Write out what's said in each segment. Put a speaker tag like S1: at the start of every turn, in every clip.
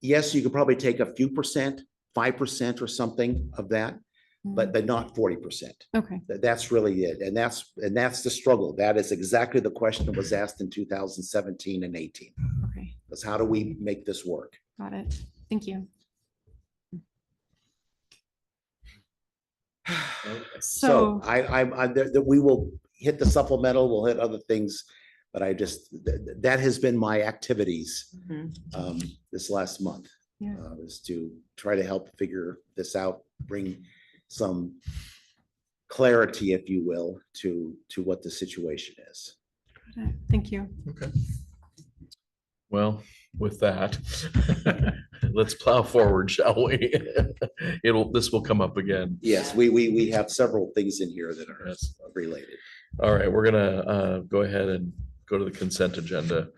S1: yes, you could probably take a few percent, five percent or something of that, but, but not forty percent.
S2: Mm, Okay,
S1: That, that's really it. And that's, and that's the struggle. That is exactly the question that was asked in two thousand seventeen and eighteen.
S2: okay,
S1: Is how do we make this work?
S2: got it. Thank you.
S1: So
S2: So,
S1: I, I, I, that, that we will hit the supplemental, we'll hit other things, but I just, th- th- that has been my activities
S2: Mhm.
S1: um, this last month.
S2: Yeah.
S1: uh, Is to try to help figure this out, bring some clarity, if you will, to, to what the situation is.
S2: got it. thank you.
S3: Well, with that, let's plow forward, shall we? It'll, this will come up again.
S1: Yes, we, we, we have several things in here that are
S3: Yes.
S1: related.
S3: All right, we're gonna uh, go ahead and go to the consent agenda.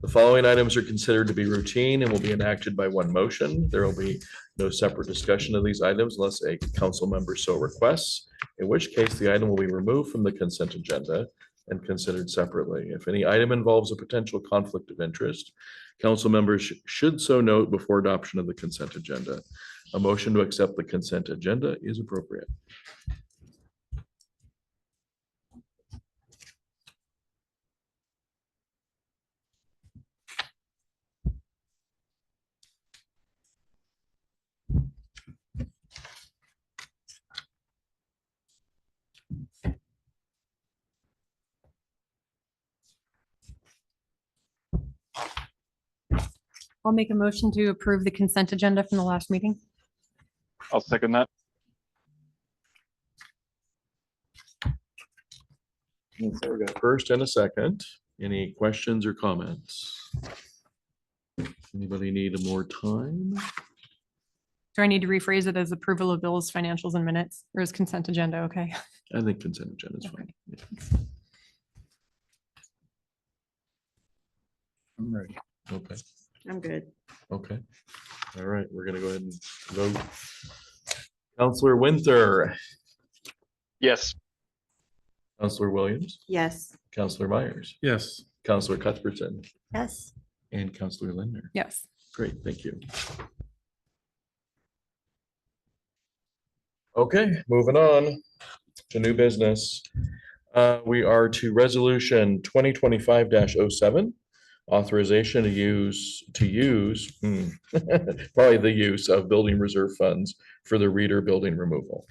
S3: The following items are considered to be routine and will be enacted by one motion. There will be no separate discussion of these items unless a council member so requests, in which case the item will be removed from the consent agenda and considered separately. If any item involves a potential conflict of interest, council members sh- should so note before adoption of the consent agenda. A motion to accept the consent agenda is appropriate.
S2: I'll make a motion to approve the consent agenda from the last meeting.
S4: I'll second that.
S3: So we got a first and a second. Any questions or comments? Anybody need more time?
S2: Do I need to rephrase it as approval of bills, financials and minutes or is consent agenda? Okay.
S3: I think consent agenda is fine. Yeah. Okay,
S5: I'm good.
S3: okay. All right, we're gonna go ahead and vote. Counselor Winter,
S4: Yes,
S3: Counselor Williams,
S5: Yes.
S3: Counselor Myers,
S6: Yes.
S3: Counselor Cuthbertson,
S5: Yes.
S3: and Counselor Linder.
S2: Yes.
S3: Great, thank you. Okay, moving on to new business. Uh, We are to resolution twenty twenty-five 7 Authorization to use, to use, hmm, probably the use of building reserve funds for the reader building removal.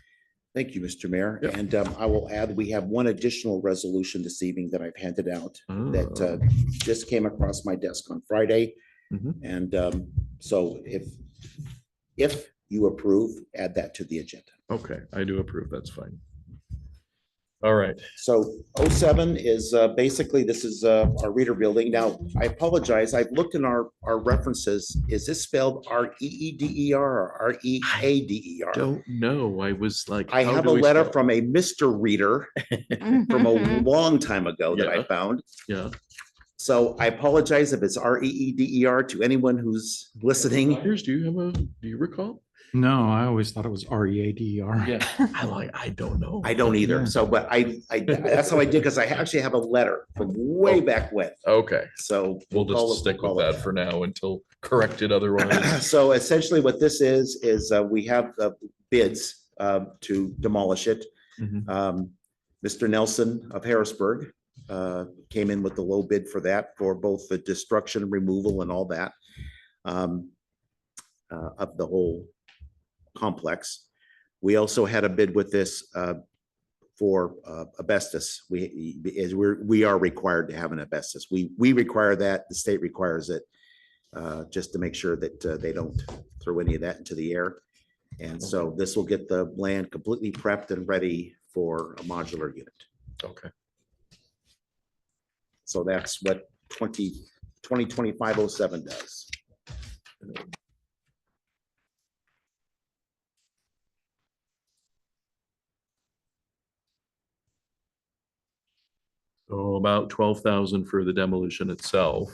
S1: Thank you, Mr. Mayor.
S3: Yeah.
S1: And um, I will add, we have one additional resolution this evening that I've handed out that uh,
S3: Mm.
S1: just came across my desk on Friday.
S3: Mhm.
S1: And um, so if, if you approve, add that to the agenda.
S3: Ah, Okay, I do approve, that's fine. All right,
S1: So 07 is uh, basically, this is uh, our reader building. Now, I apologize, I've looked in our, our references. Is this spelled R E E D E R or R E A D E R?
S3: don't know, I was like.
S1: I
S3: how
S1: have
S3: do
S1: a
S3: we
S1: letter
S3: spell-
S1: from a Mr. Reader from a long time ago that I
S3: Yeah.
S1: found.
S3: Yeah,
S1: So I apologize if it's R E E D E R to anyone who's listening.
S3: Myers, do you have a, do you recall?
S6: No, I always thought it was R E A D E R.
S3: Yeah, I like, I don't know.
S1: I don't either.
S6: Yeah.
S1: So, but I, I, that's how I did, because I actually have a letter from way back when.
S3: Okay,
S1: So.
S3: we'll
S1: call it-
S3: just stick with
S1: call it
S3: that for now until corrected otherwise.
S1: So essentially what this is, is uh, we have uh, bids um, to demolish it.
S3: Mhm.
S1: Um, Mr. Nelson of Harrisburg uh, came in with the low bid for that, for both the destruction, removal and all that um, uh, of the whole complex. We also had a bid with this uh, for uh, asbestos. We, is, we're, we are required to have an asbestos. We, we require that, the state requires it uh, just to make sure that uh, they don't throw any of that into the air. And so this will get the land completely prepped and ready for a modular unit.
S3: Okay,
S1: So that's what 20 2025-07 does.
S3: so about twelve thousand for the demolition itself.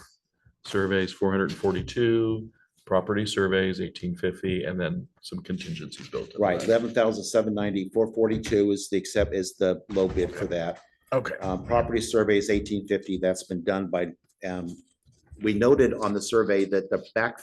S3: Surveys four hundred and forty-two, property surveys eighteen fifty, and then some contingencies built. into
S1: Right,
S3: that.
S1: eleven thousand seven ninety, four forty-two is the accept, is the low bid for that.
S3: Okay,
S1: Um, property surveys eighteen fifty, that's been done by, um, we noted on the survey that the back